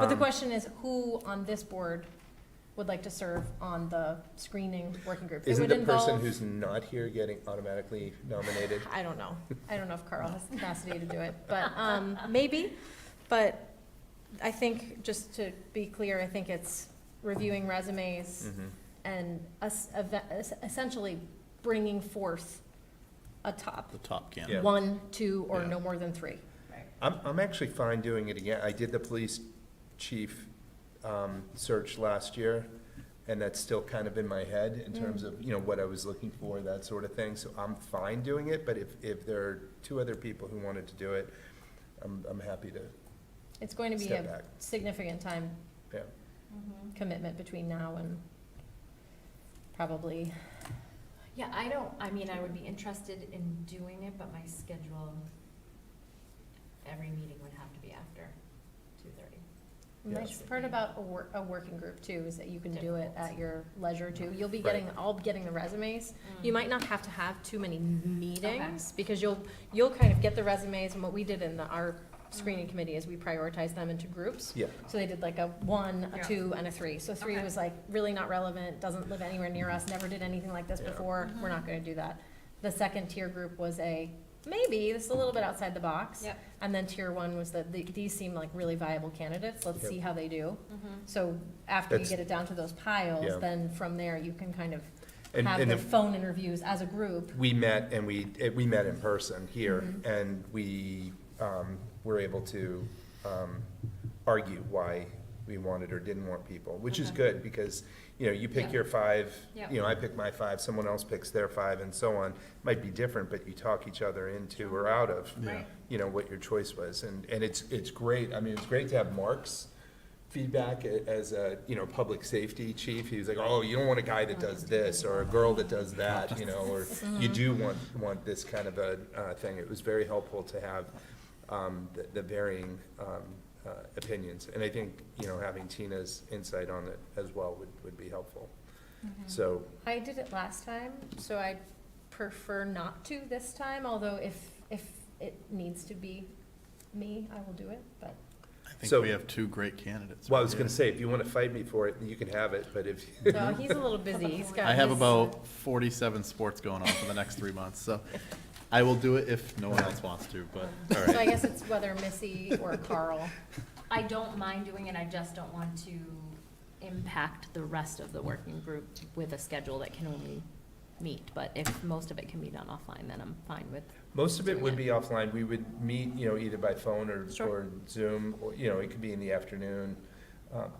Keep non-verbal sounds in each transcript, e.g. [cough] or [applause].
But the Um, question is, who on this board would like to serve on the screening working group? It Isn't would the person involve- who's not here getting automatically nominated? I don't know. I don't know if Carl has the capacity to do [laughs] it, but, um, maybe. But I think, just to be clear, I think it's reviewing resumes Mhm. and us, eva- es- essentially bringing forth a top, the top can. Yeah. one, two, or Yeah. no more than three. I'm, I'm actually fine doing it again. I did the police chief um, search last year, and that's still kind of in my head Mm. in terms of, you know, what I was looking for, that sort of thing. So I'm fine doing it, but if, if there are two other people who wanted to do it, I'm, I'm happy to It's going to be step a back. significant time Yeah. Mm-hmm. commitment between now and probably Yeah, I don't, I mean, I would be interested in doing it, but my schedule, every meeting would have to be after two thirty. The Yeah. Nice part about a wor- a working group too, is that you can do it at your leisure too. You'll be Right. getting, all getting the resumes. You might not have to have too many meetings, Okay. because you'll, you'll kind of get the resumes, and what we did in the, our screening committee is we prioritized them into groups. Yeah, So they did like a one, a Yeah. two, and a three. So three Okay. was like really not relevant, doesn't live anywhere near us, never did anything like this Yeah. before, we're Mhm. not gonna do that. The second tier group was a, maybe, this is a little bit outside the box. Yep. And then tier one was that the- these seem like really viable candidates, let's Yep. see how they do. Mm-hmm. So after you That's- get it down to those Yeah. piles, then from there, you can kind of and, have and the if, phone interviews as a group. we met and we, eh, we met in person here, Mm-hmm. and we um, were able to um, argue why we wanted or didn't want people, which is Okay. good, because, you know, you pick Yeah. your five, Yeah. you know, I pick my five, someone else picks their five, and so on. Might be different, but you talk each other into or out of, Yeah. you know, what your choice was, and, and it's, it's great, I mean, it's great to have Mark's feedback a- as a, you know, public safety chief, he was like, oh, you don't want a guy that does this, or a girl that does that, you know, or you do want, want this kind of a, uh, thing, it was very helpful to have, um, the- the varying, um, uh, opinions, and I think, you know, having Tina's insight on it as well would, would be helpful, so, I did it last time, so I prefer not to this time, although if, if it needs to be me, I will do it, [laughs] but. I think So- we have two great candidates. well, I right was gonna here. say, if you wanna fight me for it, you can have it, but if, No, he's a little busy, [laughs] he's got. I have his- about forty-seven sports going on for the next three months, so I will do it if no one else wants to, but, all So I right. guess it's whether Missy or Carl. Mm-hmm. I don't mind doing it, I just don't want to impact the rest of the working group with a schedule that can only meet. But if most of it can be done offline, then I'm fine with. Most of it doing would it. be offline. We would meet, you know, either by phone or, Sure. or Zoom, or, you know, it could be in the afternoon, um,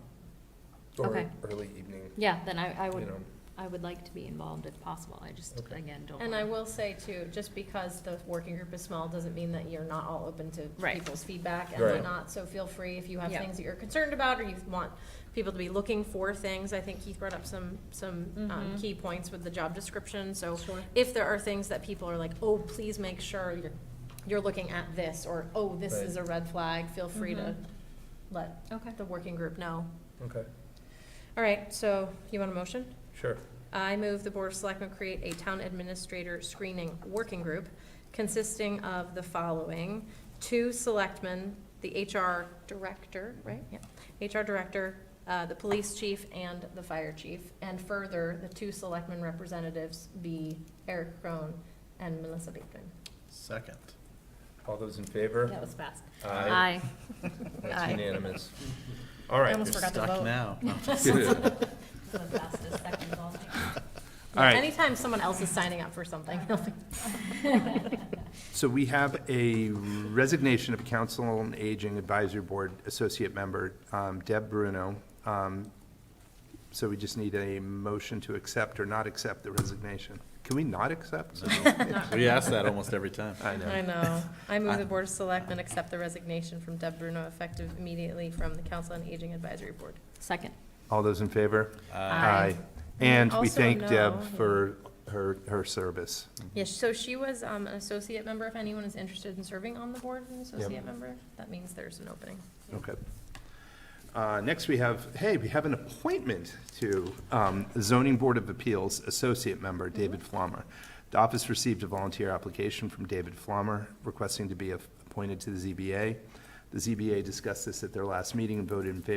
or Okay. early evening, Yeah, then I, I you would, know. I would like to be involved if possible, I just, Okay. again, don't. And wanna- I will say too, just because the working group is small, doesn't mean that you're not all open to Right. people's feedback and Right. whatnot, so feel free if you have Yeah. things that you're concerned about, or you want people to be looking for things, I think Keith brought up some, some, um, Mhm. key points with the job description, so Sure. if there are things that people are like, oh, please make sure you're, you're looking at this, or, oh, this Right. is a red flag, feel free to Mhm. let Okay. the working group know. Okay, All right, so you want a motion? sure. I move the Board of Selectmen create a town administrator screening working group consisting of the following: two selectmen, the HR director, right? Yeah, HR director, uh, the police chief, and the fire chief. And further, the two selectmen representatives be Eric Crone and Melissa Bateman. [laughs] Second. All those in favor? That was fast. Aye. Aye. That's unanimous. All right. I almost You're forgot to vote. [laughs] stuck now. No, The fastest second of all time. All right. Anytime someone else is signing up for something, [laughs] they'll be- [laughs] So we have a resignation of Council on Aging Advisory Board Associate Member um, Deb Bruno. Um, So we just need a motion to accept or not accept the resignation. Can we not [laughs] accept? [laughs] We ask that almost every time. I know. I know. I move the Board of Selectmen accept the resignation from Deb Bruno effective immediately from the Council on Aging Advisory Board. Second. All those in favor? Aye. And we Also thank Deb no. for her, her service. Yes, so she was um, an associate member. If anyone is interested in serving on the board, an associate member, that means there's an opening. Okay. Uh, Next, we have, hey, we have an appointment to um, Zoning Board of Appeals Associate Member David Flommer. The office received a volunteer application from David Flommer requesting to be appointed to the ZBA. The ZBA discussed this at their last meeting and voted in favor